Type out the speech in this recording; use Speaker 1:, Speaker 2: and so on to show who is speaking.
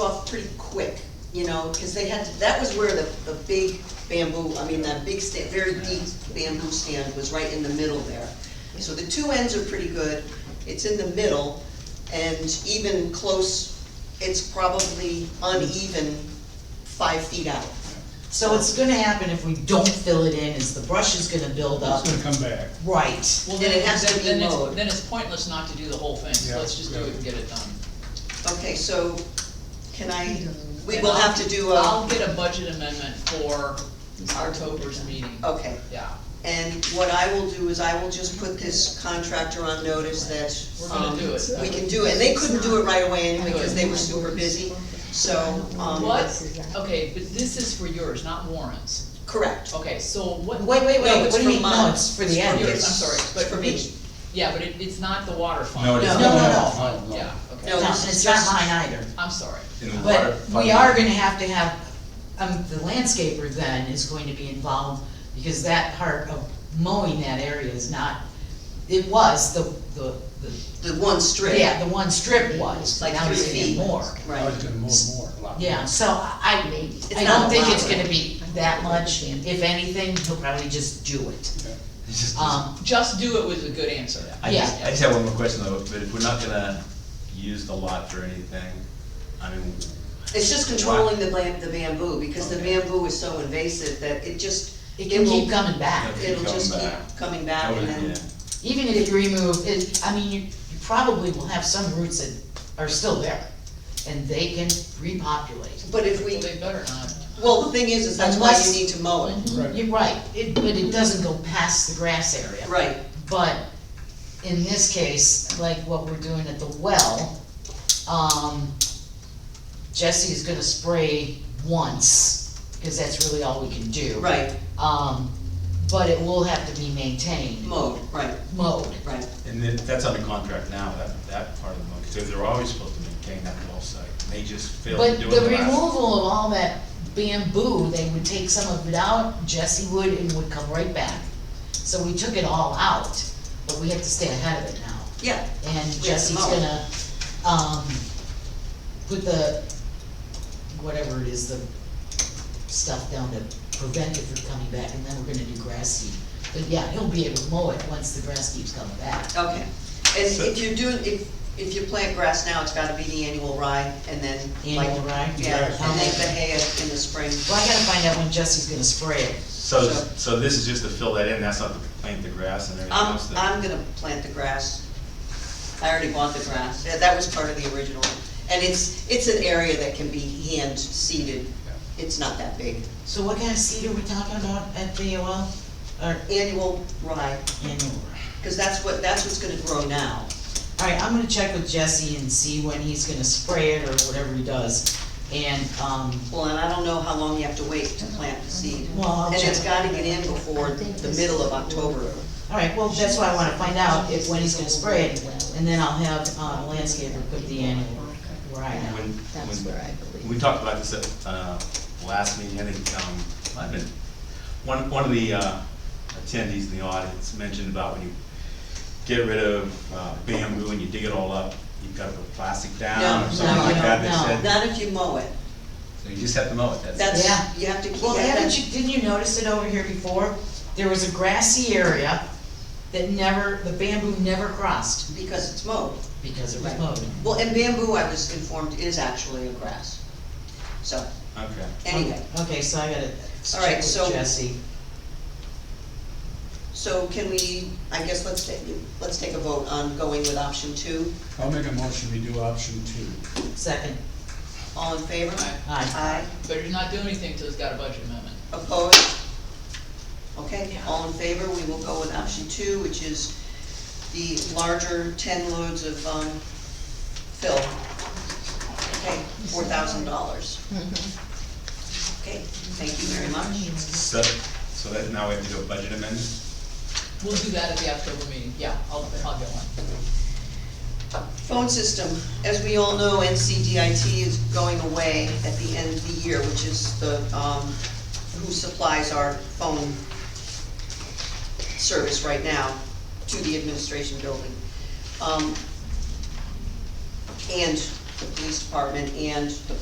Speaker 1: off pretty quick, you know, because they had, that was where the, the big bamboo, I mean, that big stand, very deep bamboo stand was right in the middle there. So the two ends are pretty good, it's in the middle, and even close, it's probably uneven five feet out.
Speaker 2: So it's gonna happen if we don't fill it in, is the brush is gonna build up,
Speaker 3: It's gonna come back.
Speaker 2: right.
Speaker 4: Well,
Speaker 1: And
Speaker 4: then,
Speaker 1: it has to
Speaker 4: then-
Speaker 1: be
Speaker 4: then it's,
Speaker 1: mowed.
Speaker 4: then it's pointless not to do the whole thing, so
Speaker 3: Yeah,
Speaker 4: let's just do
Speaker 3: yeah.
Speaker 4: it and get it done.
Speaker 1: Okay, so can I, we
Speaker 4: And
Speaker 1: will
Speaker 4: I'll-
Speaker 1: have to do a,
Speaker 4: I'll get a budget amendment for October's meeting,
Speaker 1: okay.
Speaker 4: yeah.
Speaker 1: And what I will do is I will just put this contractor on notice that.
Speaker 4: We're gonna
Speaker 1: um,
Speaker 4: do it.
Speaker 1: We can do it, and they couldn't do it right away anyway, because they were super busy, so, um.
Speaker 4: What, okay, but this is for yours, not Warren's,
Speaker 1: Correct.
Speaker 4: okay, so what?
Speaker 2: Wait, wait, wait,
Speaker 1: No,
Speaker 2: what
Speaker 1: it's
Speaker 2: do you
Speaker 1: for
Speaker 2: mean, no,
Speaker 1: mine.
Speaker 2: it's for the end.
Speaker 4: Yours, I'm sorry, but
Speaker 1: For
Speaker 4: for
Speaker 1: me.
Speaker 4: me, yeah, but it, it's not the water fund.
Speaker 5: No, it
Speaker 1: No.
Speaker 5: is.
Speaker 2: No, no,
Speaker 5: not.
Speaker 4: Yeah,
Speaker 2: No,
Speaker 1: No.
Speaker 4: okay,
Speaker 2: and it's not mine either,
Speaker 4: I'm sorry,
Speaker 5: In the water
Speaker 2: but we
Speaker 5: fund.
Speaker 2: are gonna have to have, um, the landscaper then is going to be involved, because that part of mowing that area is not, it was the, the, the,
Speaker 1: The one strip.
Speaker 2: yeah, the one strip was, but
Speaker 1: Like
Speaker 2: now
Speaker 1: three
Speaker 2: it's gonna be
Speaker 1: feet.
Speaker 2: more.
Speaker 3: I was
Speaker 1: Right.
Speaker 3: gonna move more, a lot.
Speaker 2: Yeah, so I, I
Speaker 1: not
Speaker 2: don't think
Speaker 1: allowed.
Speaker 2: it's gonna be that much, if anything, he'll probably just do it.
Speaker 5: It's just-
Speaker 2: Um,
Speaker 4: just do it was a good answer.
Speaker 5: I
Speaker 2: yeah.
Speaker 5: just, I just have one more question though, but if we're not gonna use the lot for anything, I mean,
Speaker 1: It's just controlling the bam- the bamboo, because the
Speaker 5: Okay.
Speaker 1: bamboo is so invasive that it just.
Speaker 2: It can
Speaker 1: will-
Speaker 2: keep coming back,
Speaker 5: Keep
Speaker 1: It'll just
Speaker 5: coming
Speaker 1: keep
Speaker 5: back.
Speaker 1: coming back,
Speaker 5: I would,
Speaker 1: and then,
Speaker 5: yeah.
Speaker 2: even if you remove, it, I mean, you, you probably will have some roots that are still there, and they can repopulate.
Speaker 1: but if we,
Speaker 4: Well, they better not.
Speaker 1: well, the thing is, is that's Mm-hmm. why you
Speaker 2: Unless-
Speaker 1: need to mow it.
Speaker 3: Right.
Speaker 2: You're right, it, but it doesn't go past the grass area.
Speaker 1: Right,
Speaker 2: But in this case, like what we're doing at the well, um, Jesse is gonna spray once, because that's really all we can do.
Speaker 1: right,
Speaker 2: Um, but it will have to be maintained,
Speaker 1: mowed, right,
Speaker 2: mowed.
Speaker 1: right.
Speaker 5: And then, that's under contract now, that, that part of the, because they're always supposed to maintain that whole site, and they just failed to
Speaker 2: But
Speaker 5: do
Speaker 2: the
Speaker 5: it the last.
Speaker 2: removal of all that bamboo, they would take some of it out, Jesse would, and would come right back. So we took it all out, but we have to stay ahead of it now.
Speaker 1: Yeah,
Speaker 2: And
Speaker 1: to
Speaker 2: Jesse's
Speaker 1: mow.
Speaker 2: gonna, um, put the, whatever it is, the stuff down to prevent it from coming back, and then we're gonna do grass seed. But yeah, he'll be able to mow it once the grass keeps coming back.
Speaker 1: okay. And if you're doing, if, if you plant grass now, it's gotta be the annual rye, and then like.
Speaker 2: Annual rye?
Speaker 1: Yeah, and
Speaker 2: How
Speaker 1: then
Speaker 2: much?
Speaker 1: the hay in the spring.
Speaker 2: Well, I gotta find out when Jesse's gonna spray it.
Speaker 5: So,
Speaker 1: so-
Speaker 5: so this is just to fill that in, that's not to plant the grass and everything
Speaker 2: Um,
Speaker 1: I'm,
Speaker 5: else that.
Speaker 1: I'm gonna plant the grass. I already bought the grass, Yeah, that was part of the original. And it's, it's an area that can be hand seeded, it's not that big.
Speaker 2: So what kind of seed are we talking about at the well? Or
Speaker 1: Annual rye,
Speaker 2: annual?
Speaker 1: cause that's what, that's what's gonna grow now.
Speaker 2: Alright, I'm gonna check with Jesse and see when he's gonna spray it or whatever he does. And, um,
Speaker 1: Well, and I don't know how long you have to wait to plant the seed.
Speaker 2: Well, I'll
Speaker 1: And it's
Speaker 2: check.
Speaker 1: gotta get in before the middle of October.
Speaker 2: alright, well, that's why I wanna find out if, when he's gonna spray it. And then I'll have, uh, landscaper put the annual right out.
Speaker 5: When,
Speaker 6: That's where I
Speaker 5: when,
Speaker 6: believe.
Speaker 5: we talked about this at, uh, last meeting, I think, um, I've been, one, one of the, uh, attendees in the audience mentioned about when you get rid of uh, bamboo and you dig it all up, you've gotta put plastic down
Speaker 1: No,
Speaker 5: or something
Speaker 2: no,
Speaker 5: like
Speaker 2: no, no.
Speaker 5: that, they said,
Speaker 1: Not if you mow it,
Speaker 5: so you just have to mow it, that's.
Speaker 1: that's,
Speaker 2: Yeah.
Speaker 1: you have to keep.
Speaker 2: Well,
Speaker 1: yeah,
Speaker 2: haven't
Speaker 1: that-
Speaker 2: you, didn't you notice it over here before? There was a grassy area that never, the bamboo never crossed
Speaker 1: Because it's mowed.
Speaker 2: because it was
Speaker 1: Right.
Speaker 2: mowed.
Speaker 1: Well, and bamboo, I was informed, is actually a grass. So,
Speaker 5: Okay.
Speaker 1: anyway,
Speaker 2: Okay, so I gotta
Speaker 1: All right,
Speaker 2: check
Speaker 1: so-
Speaker 2: with Jesse.
Speaker 1: so can we, I guess let's take, let's take a vote on going with option two.
Speaker 3: I'll make a motion, we do option two.
Speaker 2: Second,
Speaker 1: All in favor?
Speaker 2: aye.
Speaker 1: Aye.
Speaker 4: Better not do anything till it's got a budget amendment.
Speaker 1: Opposed? Okay, all in favor, we will go with option two, which is the larger ten loads of, um, fill. Okay, four thousand dollars.
Speaker 2: Mm-hmm.
Speaker 1: Okay, thank you very much.
Speaker 5: So, so that, now we have to do a budget amendment?
Speaker 4: We'll do that at the October meeting, yeah, I'll, I'll get one.
Speaker 1: Phone system, as we all know, NCDIT is going away at the end of the year, which is the, um, who supplies our phone service right now to the administration building. Um, and the police department and the